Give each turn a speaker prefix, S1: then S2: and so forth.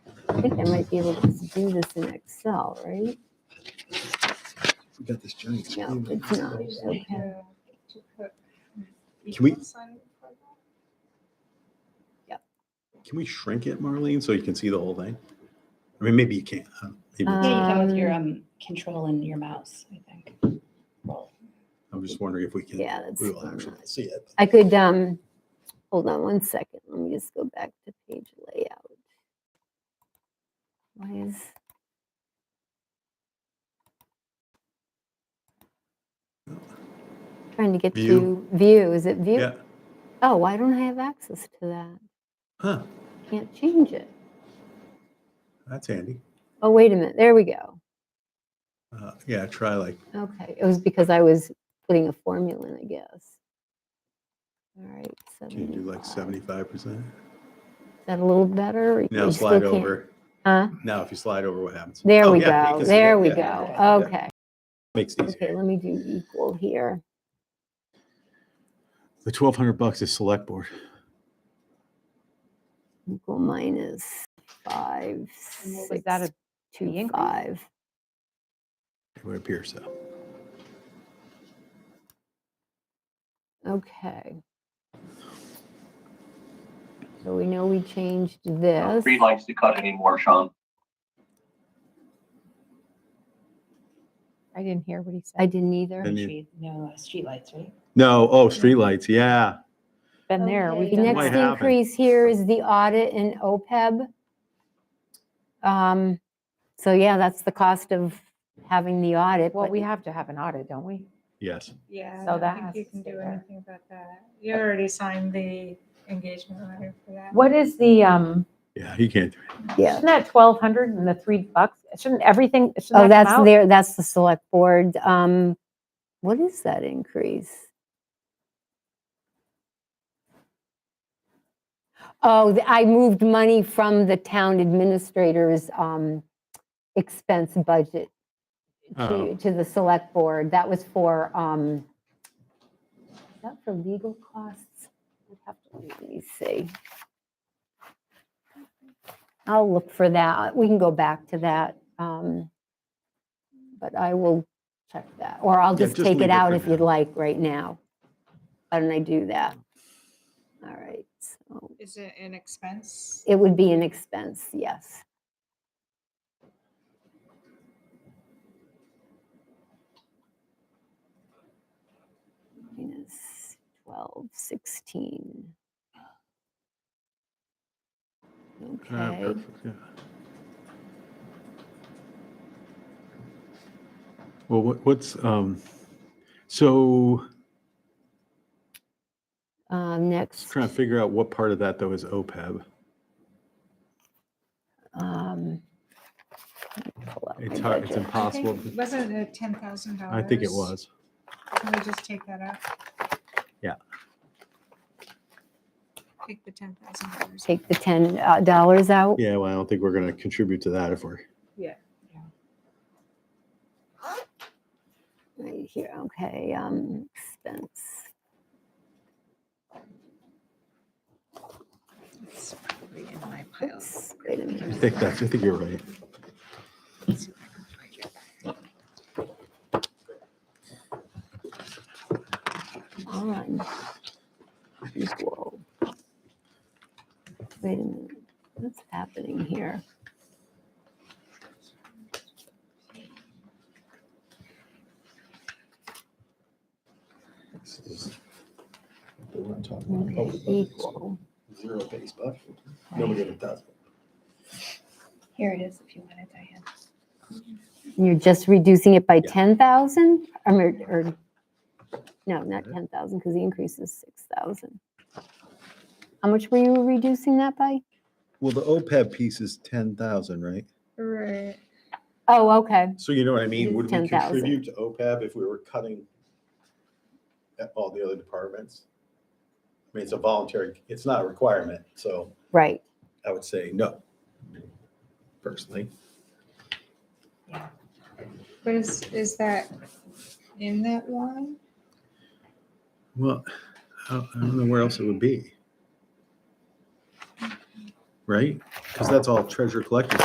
S1: think I might be able to just do this in Excel, right?
S2: We got this giant
S1: No,
S2: screen.
S1: it's not. Okay.
S2: Can we-
S3: Can
S2: Can we shrink it, Marlene, so you can see the whole thing? I mean, maybe you can't. huh? Maybe,
S1: Uh,
S4: Yeah, you can with your um control and your mouse, I think.
S2: I'm just wondering if we can,
S1: Yeah, that's.
S2: we will
S1: not-
S2: actually see it.
S1: I could, um, hold on one second. Let me just go back to page layout. Why is? Trying to get to
S2: View.
S1: view. Is it view?
S2: Yeah,
S1: Oh, why don't I have access to that?
S2: huh,
S1: Can't change it.
S2: that's handy.
S1: Oh, wait a minute. There we go.
S2: Uh, yeah, try like,
S1: Okay, it was because I was putting a formula in, I guess. All right.
S2: can you do
S1: 75.
S2: like seventy-five percent?
S1: Is that a little better? or you-
S2: Now
S1: you still
S2: slide
S1: can't-
S2: over.
S1: Huh?
S2: Now, if you slide over, what happens?
S1: There
S2: Oh,
S1: we
S2: yeah, you
S1: go.
S2: can see it.
S1: There we
S2: Yeah,
S1: go. Okay.
S2: Makes it
S1: Okay,
S2: easier.
S1: let me do equal here.
S2: The twelve hundred bucks is select board.
S1: Equal minus five,
S5: And what
S1: six,
S5: was that, a fee
S1: two,
S5: increase?
S1: five.
S2: It would appear so.
S1: Okay. So we know we changed this.
S6: Reed likes to cut anymore, Sean.
S5: I didn't hear what he
S1: I
S5: said.
S1: didn't either.
S2: And you-
S4: Street, no, uh, streetlights, right?
S2: No, oh, streetlights, yeah.
S5: Been there.
S1: The
S5: We've done
S1: next
S2: Might
S5: that.
S2: happen.
S1: increase here is the audit and OPEB. E Um, so yeah, that's the cost of having the audit.
S5: Well,
S1: but-
S5: we have to have an audit, don't we?
S2: Yes.
S3: Yeah, I
S5: So
S3: don't
S5: that
S3: think
S5: has
S3: you
S5: to
S3: can
S5: stay
S3: do
S5: there.
S3: anything about that. You already signed the engagement letter for that.
S5: What is the, um,
S2: Yeah, he can't. do it.
S1: Yeah.
S5: isn't that twelve hundred and the three bucks? Shouldn't everything,
S1: Oh,
S5: shouldn't that
S1: that's
S5: come out?
S1: there, that's the select board. Um, what is that increase? Oh, the- I moved money from the town administrator's, um, expense budget
S2: Oh.
S1: to, to the select board. That was for, um, is that for legal costs? I'd have to, let me see. I'll look for that. We can go back to that. um, But I will check that, or I'll
S2: Yeah,
S1: just
S2: just
S1: take it
S2: leave it
S1: out
S2: for
S1: if you'd
S2: now.
S1: like right now. Why don't I do that? All right, so
S3: Is it an expense?
S1: it would be an expense, yes. Minus 12, 16.
S2: Ah,
S1: Okay,
S2: perfect, yeah. Well, what, what's, um, so
S1: uh,
S2: just
S1: next,
S2: trying to figure out what part of that though is E OPEB.
S1: um, let me pull up
S2: It's
S1: my
S2: hard,
S1: budget.
S2: it's
S3: I
S2: impossible.
S3: think-
S2: to-
S3: Wasn't it ten thousand dollars?
S2: I think it was.
S3: Can we just take that out?
S2: Yeah.
S3: Take the ten thousand dollars.
S1: Take the $10 uh, dollars out.
S2: Yeah, well, I don't think we're gonna contribute to that if we're,
S1: Right here, okay, um, expense.
S3: It's probably in my pile.
S1: Oops, Wait a
S2: I
S1: minute.
S2: think that's, I think you're right.
S3: Let's see if I can find it.
S1: on equal. Wait a minute, what's happening here?
S2: This is- We're not talking about
S1: Okay,
S2: public budget, so
S1: Equal,
S2: Zero base budget. Nobody ever does.
S4: Here it is if you want it, Diane.
S1: you're just reducing it by
S2: Yeah.
S1: ten thousand, or, or, no, not ten thousand, because the increase is six thousand. How much were you reducing that by?
S2: Well, the OPEB piece is ten thousand, right?
S3: Right.
S1: Oh, okay,
S2: So you know what I mean?
S1: It's
S2: Would we
S1: 10,000.
S2: contribute to OPEB if we were cutting at all the other departments? I mean, it's a voluntary, it's not a requirement, so
S1: right,
S2: I would say no, personally.
S3: But is, is that in that line?
S2: Well, I don't- I don't know where else it would be. Right? Because that's all treasure collector